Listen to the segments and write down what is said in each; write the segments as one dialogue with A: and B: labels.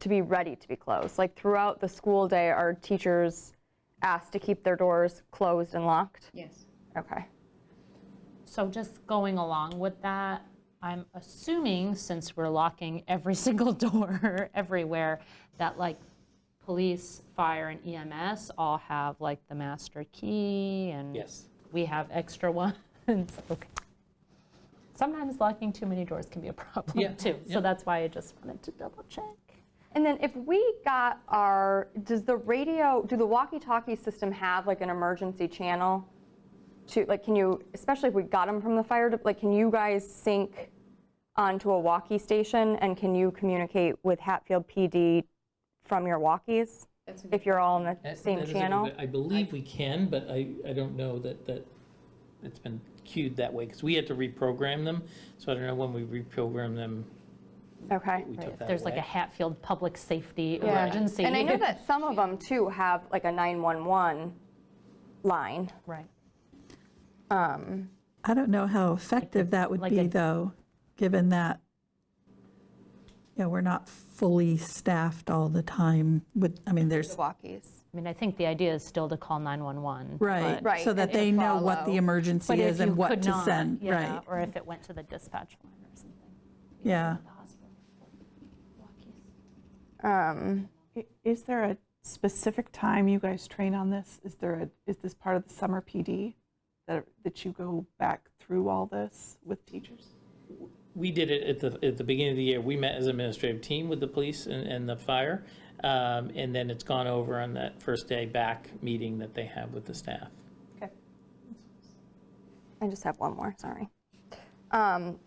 A: to be ready to be closed. Like throughout the school day, are teachers asked to keep their doors closed and locked?
B: Yes.
A: Okay.
C: So just going along with that, I'm assuming, since we're locking every single door everywhere, that like police, fire, and EMS all have like the master key and
D: Yes.
C: we have extra ones. Okay. Sometimes locking too many doors can be a
D: Yeah,
C: problem too.
D: yeah.
C: So that's why I just wanted to double check.
A: And then if we got our, does the radio, do the walkie-talkie system have like an emergency channel? To, like, can you, especially if we got them from the fire, de- like, can you guys sync onto a walkie station? And can you communicate with Hatfield PD from your walkies?
B: That's a good
A: If you're all on the
D: Uh, That-
A: same
D: that is a good-
A: channel?
D: I believe we can, but I, I don't know that, that it's been cued that way, because we had to reprogram them, so I don't know when we reprogrammed them,
A: Okay.
D: we took that
C: If
D: away.
C: there's like a Hatfield Public Safety
A: Yeah.
C: emergency.
A: And I know that some of them too have like a 911 line. Um,
C: Right.
E: I don't know how effective that would
C: like
E: be,
C: a-
E: though, given that, you know, we're not fully staffed all the time with, I mean, there's,
A: Walkies.
C: I mean, I think the idea is still to call 911.
E: right,
A: Right,
E: so
A: and
E: that
A: to
E: they know what
A: follow.
E: the emergency
C: But if
E: is
C: you
E: and what
C: could
E: to
C: not,
E: send,
C: yeah,
E: right,
C: Or if it went to the dispatch line or something.
E: yeah.
C: The hospital. Walkies.
A: Um,
F: I- Is there a specific time you guys train on this? Is there a, is this part of the summer PD? That, that you go back through all this with teachers?
D: we did it at the, at the beginning of the year. We met as an administrative team with the police and, and the fire. Um, and then it's gone over on that first day back meeting that they have with the staff.
F: Okay.
A: I just have one more, sorry. Um,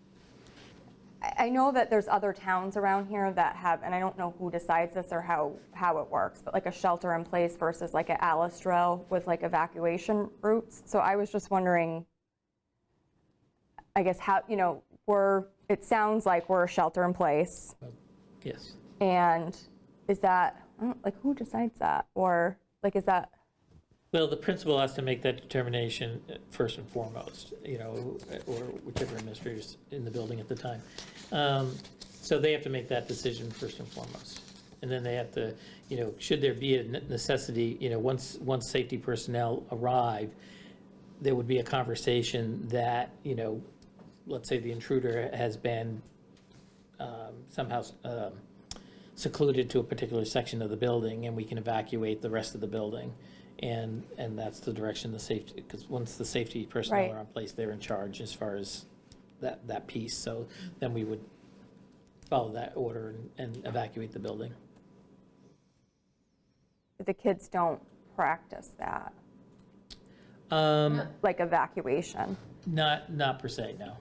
A: I I know that there's other towns around here that have, and I don't know who decides this or how, how it works, but like a shelter in place versus like a Alistrel with like evacuation routes. So I was just wondering, I guess how, you know, we're, it sounds like we're a shelter in place.
D: Yes.
A: And is that, I don't- like, who decides that? Or like, is that?
D: Well, the principal has to make that determination uh, first and foremost, you know, or whichever administrator's in the building at the time. Um, So they have to make that decision first and foremost. And then they have to, you know, should there be a ne- necessity, you know, once, once safety personnel arrive, there would be a conversation that, you know, let's say the intruder has been um, somehow um, secluded to a particular section of the building, and we can evacuate the rest of the building. And, and that's the direction the safety, because once the safety personnel
A: Right.
D: are in place, they're in charge as far as that, that piece. So then we would follow that order and- and evacuate the building.
A: the kids don't practice that,
D: Um,
A: like evacuation.
D: Not, not per se, no.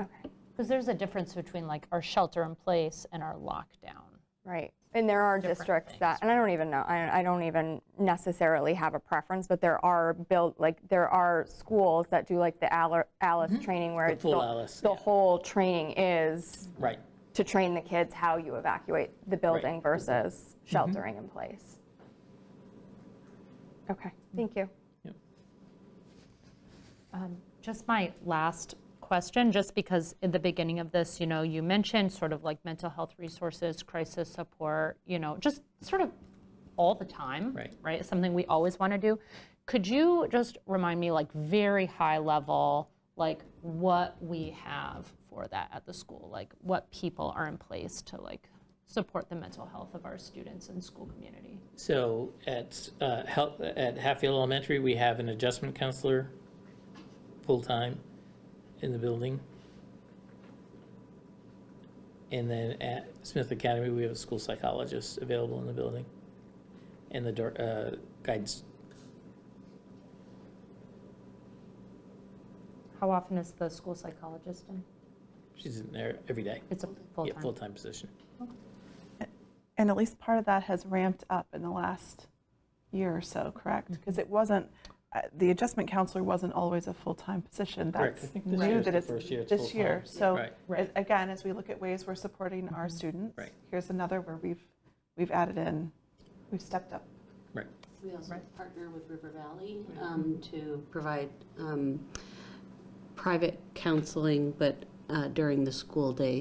A: Okay,
C: Because there's a difference between like our shelter in place and our lockdown.
A: right. And there are districts that, and I don't even know, I I don't even necessarily have a preference, but there are built, like, there are schools that do like the Al- Alice training where
D: Mm-hmm. The
A: it's
D: full Alice,
A: The
D: yeah.
A: whole training is
D: Right.
A: to train the kids how you evacuate the building versus
D: Mm-hmm.
A: sheltering in place. Okay, thank you.
D: Yep.
C: Just my last question, just because in the beginning of this, you know, you mentioned sort of like mental health resources, crisis support, you know, just sort of all the time.
D: Right.
C: Right? It's Something we always want to do. Could you just remind me, like, very high level, like what we have for that at the school? Like, what people are in place to like support the mental health of our students and school community?
D: So at, uh, Hel- at Hatfield Elementary, we have an adjustment counselor, full-time, in the building. And then at Smith Academy, we have a school psychologist available in the building, and the dir- uh, guidance.
C: How often is the school psychologist in?
D: She's in there every day.
C: It's a full
D: Yeah,
C: time.
D: full-time position.
F: And at least part of that has ramped up in the last year or so, correct?
D: Mm-hmm.
F: Because it wasn't, uh, the adjustment counselor wasn't always a full-time position.
D: Correct. I
F: That's
D: think this year
F: new
D: is
F: that
D: the
F: it's
D: first year it's
F: this year.
D: full-time.
F: So
D: Right. Mm-hmm.
F: as- again, as we look at ways we're supporting our students,
D: Right.
F: here's another where we've, we've added in, we've stepped up.
D: Right.
G: We also partner with River Valley um, to provide um, private counseling, but uh, during the school day